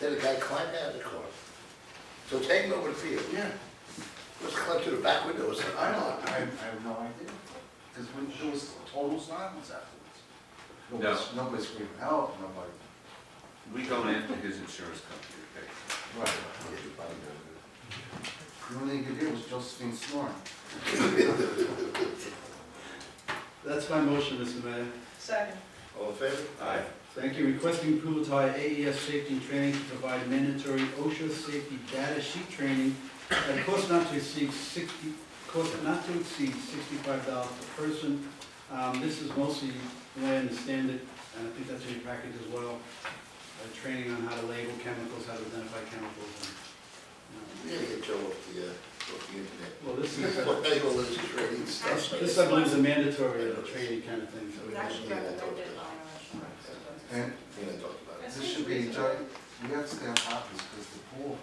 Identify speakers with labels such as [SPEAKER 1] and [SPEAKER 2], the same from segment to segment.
[SPEAKER 1] Then the guy climbed out of the car. So take him over the field.
[SPEAKER 2] Yeah,
[SPEAKER 1] Let's climb through the back window or something.
[SPEAKER 2] I don't, I, I have no idea, because when, there was total silence afterwards. Nobody, nobody screamed help, nobody.
[SPEAKER 3] We go after his insurance company, okay?
[SPEAKER 2] Right. The only thing you could hear was Josephine snoring.
[SPEAKER 4] That's my motion, Mr. Mayor.
[SPEAKER 5] Second.
[SPEAKER 1] All in favor?
[SPEAKER 3] Aye.
[SPEAKER 4] Thank you. Requesting approval to hire AES Safety and Training to provide mandatory OSHA safety data sheet training at a cost not to exceed sixty, cost not to exceed sixty-five dollars per person. Um, this is mostly, the way I understand it, and I think that's in your package as well, uh, training on how to label chemicals, how to identify chemicals. and,
[SPEAKER 1] We gotta get Joe off the, uh, off the internet.
[SPEAKER 4] you know. Well, this is,
[SPEAKER 1] What the hell is this trading stuff?
[SPEAKER 5] Actually,
[SPEAKER 4] this I believe is a mandatory uh, training kind of thing, so.
[SPEAKER 5] It's actually recommended by our insurance.
[SPEAKER 2] And uh,
[SPEAKER 1] Me and I talked about it.
[SPEAKER 2] this should be, done- we have to stay on top of this, because the pool,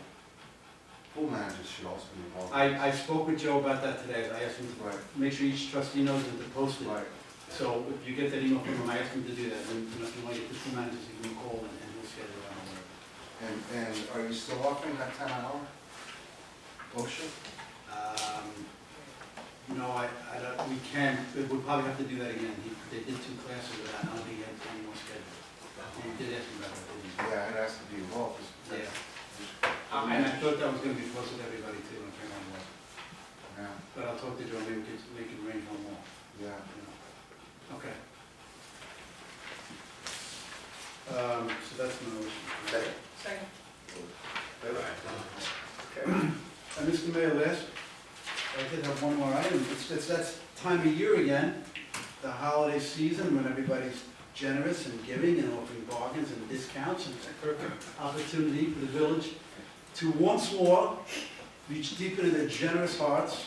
[SPEAKER 2] pool managers should also be involved.
[SPEAKER 4] I, I spoke with Joe about that today, I asked him to
[SPEAKER 2] Right,
[SPEAKER 4] make sure each trustee knows that to post it.
[SPEAKER 2] right.
[SPEAKER 4] So if you get that email from him, I ask him to do that, and you know, if you want to get the two managers, you can call and and we'll schedule it out.
[SPEAKER 2] And, and are you still offering that ten hour? OSHA?
[SPEAKER 4] Um, No, I, I don't, we can, but we'll probably have to do that again. He- They did two classes with that, I don't think he had any more scheduled. He did ask me about it, didn't he?
[SPEAKER 2] Yeah, it has to be involved. 'cause that's-
[SPEAKER 4] Yeah. And I thought that was gonna be posted to everybody too, and turn on what,
[SPEAKER 2] Yeah,
[SPEAKER 4] but I'll talk to Joe, maybe we can, we can arrange one more,
[SPEAKER 2] yeah.
[SPEAKER 4] you know. Okay. Um, so that's my motion.
[SPEAKER 1] Second.
[SPEAKER 5] Second.
[SPEAKER 4] Uh, Mr. Mayor, last, I did have one more item, it's, it's that time of year again, the holiday season, when everybody's generous and giving and offering bargains and discounts, and it's a perfect opportunity for the village to once more reach deep into their generous hearts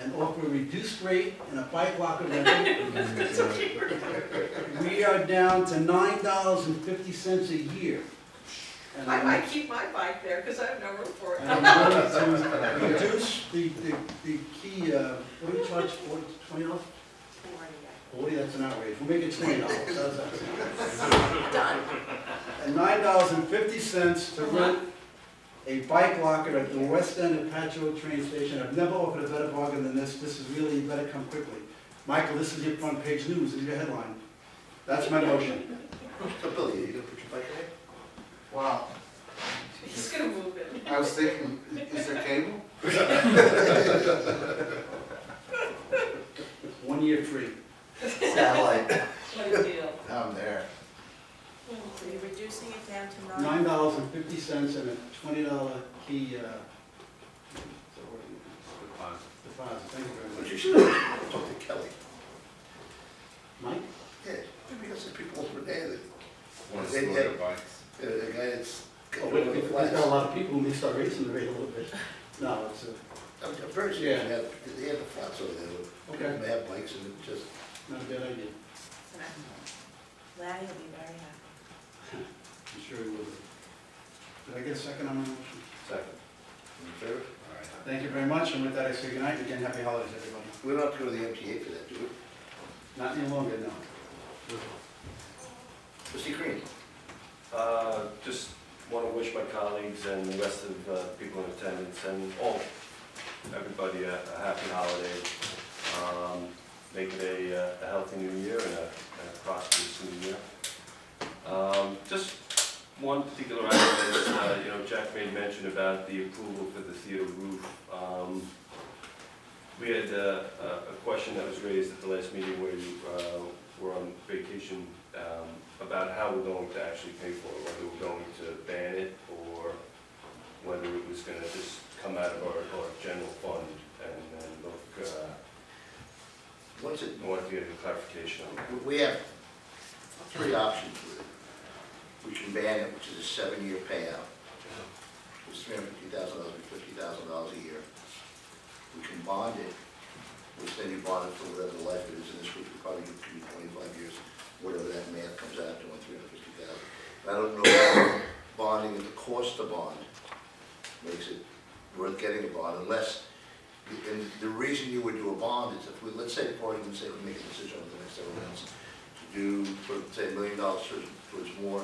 [SPEAKER 4] and offer a reduced rate and a bike locker rental. We are down to nine dollars and fifty cents a year. And
[SPEAKER 5] I
[SPEAKER 4] I'm-
[SPEAKER 5] might keep my bike there because I have no room for it.
[SPEAKER 4] and I'm going to reduce the, the, the key, uh, what do you charge, forty, twenty dollars? Forty, that's an outrage, we'll make it twenty dollars, how's that? And nine dollars and fifty cents to rent a bike locker at the west end of Patchogue train station. I've never offered a better bargain than this, this is really, you better come quickly. Michael, this is your front page news, this is your headline. That's my motion.
[SPEAKER 1] So Billy, are you gonna put your bike in?
[SPEAKER 2] Wow,
[SPEAKER 5] He's gonna move it.
[SPEAKER 2] I was thinking, is there cable?
[SPEAKER 4] One year free.
[SPEAKER 2] Satellite.
[SPEAKER 5] What a deal.
[SPEAKER 2] Down there.
[SPEAKER 6] So you're reducing it down to nine?
[SPEAKER 4] nine dollars and fifty cents and a twenty dollar key, uh, so what- deposit, thank you very
[SPEAKER 1] But you
[SPEAKER 4] much.
[SPEAKER 1] should talk to Kelly.
[SPEAKER 4] Mike?
[SPEAKER 1] Yeah, because the people over there, the,
[SPEAKER 3] Want to
[SPEAKER 1] They-
[SPEAKER 3] slow
[SPEAKER 1] they-
[SPEAKER 3] their bikes?
[SPEAKER 1] the the guy that's.
[SPEAKER 4] Oh, wait, we've got a lot of people, who may start raising the rate a little bit. No, it's a,
[SPEAKER 1] I'm I'm very sure they
[SPEAKER 4] Yeah.
[SPEAKER 1] have, they have the flats over there.
[SPEAKER 4] Okay.
[SPEAKER 1] They have bikes and it just,
[SPEAKER 4] not a bad idea,
[SPEAKER 6] Larry will be very happy.
[SPEAKER 4] I'm sure we will. Did I get a second on my motion?
[SPEAKER 1] second. In favor?
[SPEAKER 4] Thank you very much, and with that, I say good night, again, happy holidays, everybody.
[SPEAKER 1] We don't have to go to the MTA for that, do we?
[SPEAKER 4] Not any longer, no.
[SPEAKER 1] Trustee Green?
[SPEAKER 7] Uh, Just want to wish my colleagues and the rest of uh, the people in attendance and all, everybody a a happy holiday. Um, Make it a uh, a healthy new year and a and a prosperous new year. Um, Just one particular item is, uh, you know, Jack made mention about the approval for the theater roof. Um, We had uh, a a question that was raised at the last meeting where you uh, were on vacation um, about how we're going to actually pay for it, whether we're going to ban it or whether it was gonna just come out of our, our general fund and then look, uh,
[SPEAKER 1] What's it,
[SPEAKER 7] I wanted to get a clarification on that.
[SPEAKER 1] We- We have three options with it. We can ban it, which is a seven-year payout. It's three hundred fifty thousand dollars, fifty thousand dollars a year. We can bond it, which then you bond it for whatever the life it is in this group, it probably could be twenty-five years, whatever that math comes out to, on three hundred fifty thousand. I don't know if bonding at the cost of bond makes it worth getting a bond unless, and the reason you would do a bond is if we, let's say, for argument's sake, we make a decision over the next several months to do, for, say, a million dollars towards- towards more,